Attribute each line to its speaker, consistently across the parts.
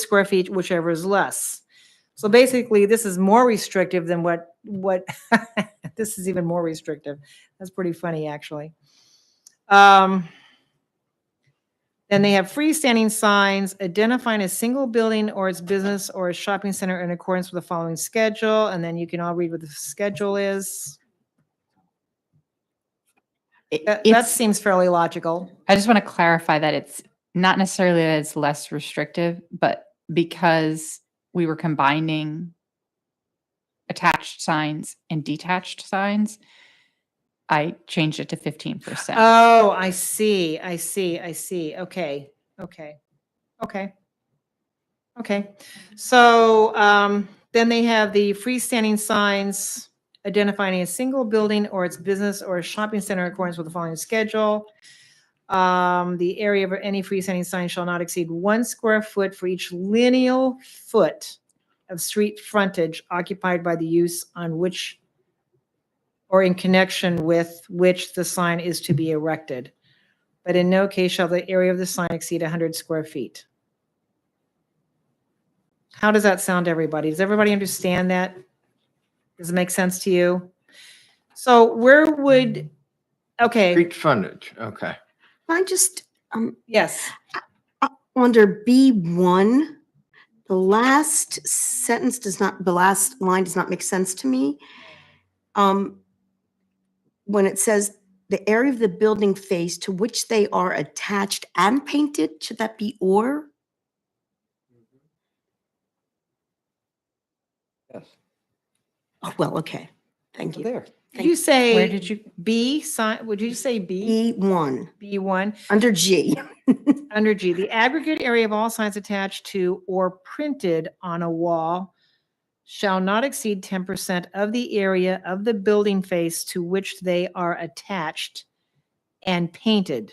Speaker 1: square feet, whichever is less. So basically, this is more restrictive than what, what, this is even more restrictive. That's pretty funny, actually. Um, Then they have freestanding signs identifying a single building or its business or a shopping center in accordance with the following schedule, and then you can all read what the schedule is.
Speaker 2: It-
Speaker 1: That, that
Speaker 2: It's,
Speaker 1: seems fairly logical.
Speaker 2: I just want to clarify that it's not necessarily that it's less restrictive, but because we were combining attached signs and detached signs, I changed it to fifteen percent.
Speaker 1: Oh, I see, I see, I see. Okay, okay, okay. Okay, so um, then they have the freestanding signs identifying a single building or its business or shopping center in accordance with the following schedule. Um, The area of any freestanding sign shall not exceed one square foot for each lineal foot of street frontage occupied by the use on which or in connection with which the sign is to be erected. But in no case shall the area of the sign exceed 100 square feet. How does that sound to everybody? Does everybody understand that? Does it make sense to you? So where would, okay,
Speaker 3: Street frontage, okay.
Speaker 4: I just um,
Speaker 1: yes.
Speaker 4: under B1, the last sentence does not, the last line does not make sense to me. Um, When it says the area of the building face to which they are attached and painted, should that be or? Oh, well, okay. Thank you.
Speaker 5: There.
Speaker 1: Did you
Speaker 2: Where
Speaker 1: say
Speaker 2: did you,
Speaker 1: B sign, would you say B,
Speaker 4: B1,
Speaker 1: B1?
Speaker 4: under G.
Speaker 1: Under G, the aggregate area of all signs attached to or printed on a wall shall not exceed ten percent of the area of the building face to which they are attached and painted,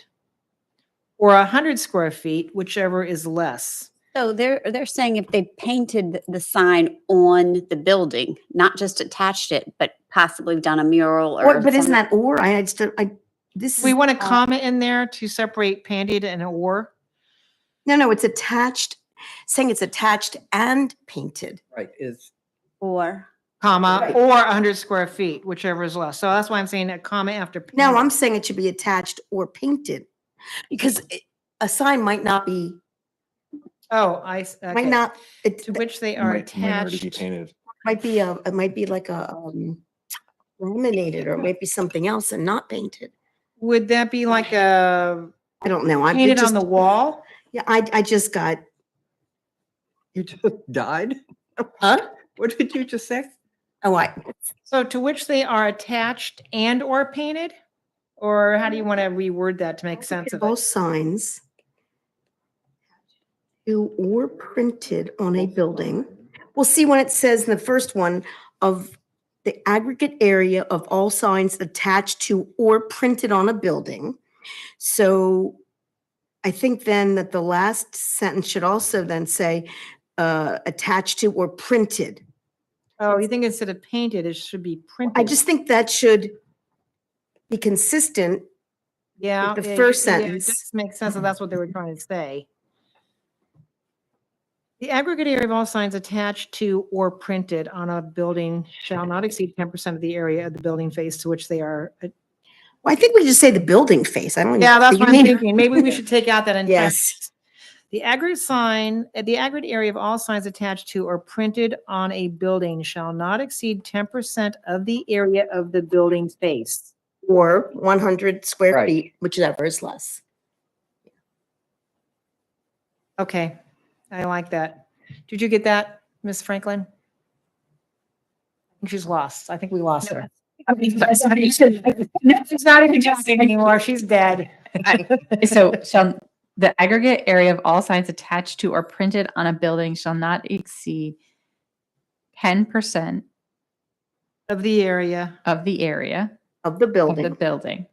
Speaker 1: or a hundred square feet, whichever is less.
Speaker 6: So they're they're saying if they painted th- the sign on the building, not just attached it, but possibly done a mural or.
Speaker 4: Or- But isn't
Speaker 6: some-
Speaker 4: that or? I I just, don't- I, this is.
Speaker 1: We want a
Speaker 4: uh,
Speaker 1: comma in there to separate painted and or.
Speaker 4: No, no, it's attached, saying it's attached and painted.
Speaker 5: Right, is,
Speaker 6: Or
Speaker 1: comma,
Speaker 4: Right.
Speaker 1: or 100 square feet, whichever is less. So that's why I'm saying a comma after.
Speaker 4: No,
Speaker 1: period.
Speaker 4: I'm saying it should be attached or painted because it- a sign might not be,
Speaker 1: Oh, I, s-
Speaker 4: might
Speaker 1: okay.
Speaker 4: not, it
Speaker 1: To
Speaker 4: it
Speaker 1: which they
Speaker 7: It
Speaker 1: are
Speaker 7: might- might already be
Speaker 1: attached.
Speaker 7: painted.
Speaker 4: might be a, it might be like a um, laminated or it might be something else and not painted.
Speaker 1: Would that be like a
Speaker 4: I don't know. I'm it
Speaker 1: painted on
Speaker 4: just-
Speaker 1: the wall?
Speaker 4: Yeah, I, I just got,
Speaker 5: you just died?
Speaker 4: huh?
Speaker 5: What did you just say?
Speaker 4: Oh, I,
Speaker 1: So to which they are attached and or painted? Or how do you want to reword that to make sense of
Speaker 4: both
Speaker 1: it?
Speaker 4: signs to or printed on a building. Well, see when it says in the first one of the aggregate area of all signs attached to or printed on a building. So I think then that the last sentence should also then say uh, attached to or printed.
Speaker 1: Oh, you think instead of painted, it should be printed?
Speaker 4: I just think that should be consistent.
Speaker 1: Yeah.
Speaker 4: the
Speaker 1: yeah,
Speaker 4: first
Speaker 1: yeah,
Speaker 4: sentence.
Speaker 1: It just makes sense that that's what they were trying to say. The aggregate area of all signs attached to or printed on a building shall not exceed ten percent of the area of the building face to which they are. a-
Speaker 4: Well, I think we just say the building face. I don't.
Speaker 1: Yeah,
Speaker 4: even-
Speaker 1: that's
Speaker 4: you
Speaker 1: what I'm
Speaker 4: mean-
Speaker 1: thinking. Maybe we should take out that entire.
Speaker 4: Yes.
Speaker 1: The aggregate sign, uh, the aggregate area of all signs attached to or printed on a building shall not exceed ten percent of the area of the building face.
Speaker 4: or 100 square
Speaker 5: Right.
Speaker 4: feet, whichever is less.
Speaker 1: Okay, I like that. Did you get that, Ms. Franklin? I think She's lost. I think we lost her. She's not even talking anymore. She's dead.
Speaker 2: so shall, the aggregate area of all signs attached to or printed on a building shall not exceed ten percent
Speaker 1: Of the area.
Speaker 2: of the area
Speaker 4: Of the
Speaker 2: of the
Speaker 4: building.
Speaker 2: building.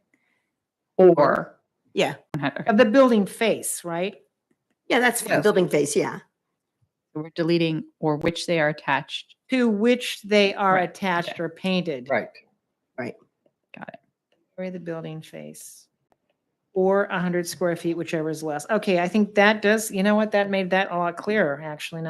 Speaker 2: Or.
Speaker 4: Yeah.
Speaker 2: Okay,
Speaker 1: Of the building face, right?
Speaker 4: Yeah, that's fine.
Speaker 5: Yes.
Speaker 4: building face, yeah.
Speaker 2: so We're deleting or which they are attached
Speaker 1: To which they are
Speaker 2: Right,
Speaker 1: attached or painted.
Speaker 5: Right.
Speaker 1: Area of the building face. or 100 square feet, whichever is less. Okay, I think that does, you know what, that made that a lot clearer, actually, now